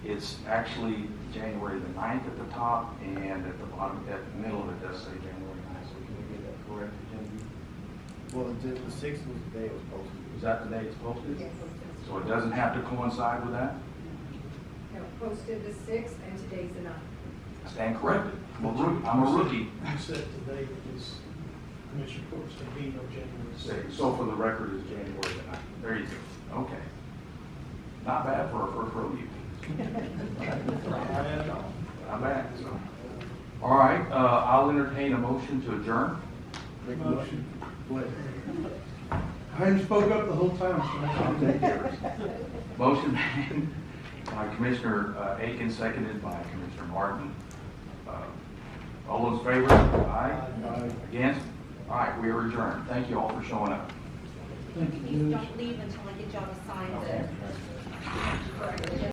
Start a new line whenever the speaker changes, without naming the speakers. it's actually January the 9th at the top, and at the bottom, at the middle of it does say January 9th, so can we get that corrected, Genevieve?
Well, the, the sixth was the day it was posted.
Is that the day it's posted?
Yes.
So it doesn't have to coincide with that?
No, posted the sixth and today's the ninth.
Stand corrected. I'm a rookie, I'm a rookie.
You said today that this commission report's going to be no January
Say,
sixth.
So for the record, it's January the 9th. There you go. Okay. Not bad for a first row meeting. Not bad, so. All right, uh, I'll entertain a motion to adjourn.
Make a motion. What?
I even spoke up the whole time,
I'll take yours. Motion made by Commissioner uh, Aiken, seconded by Commissioner Martin. Uh, All those in favor? Aye. Against? All right, we are adjourned. Thank you all for showing up.
Thank you,
Please
Judge.
don't leave until I get y'all to sign the.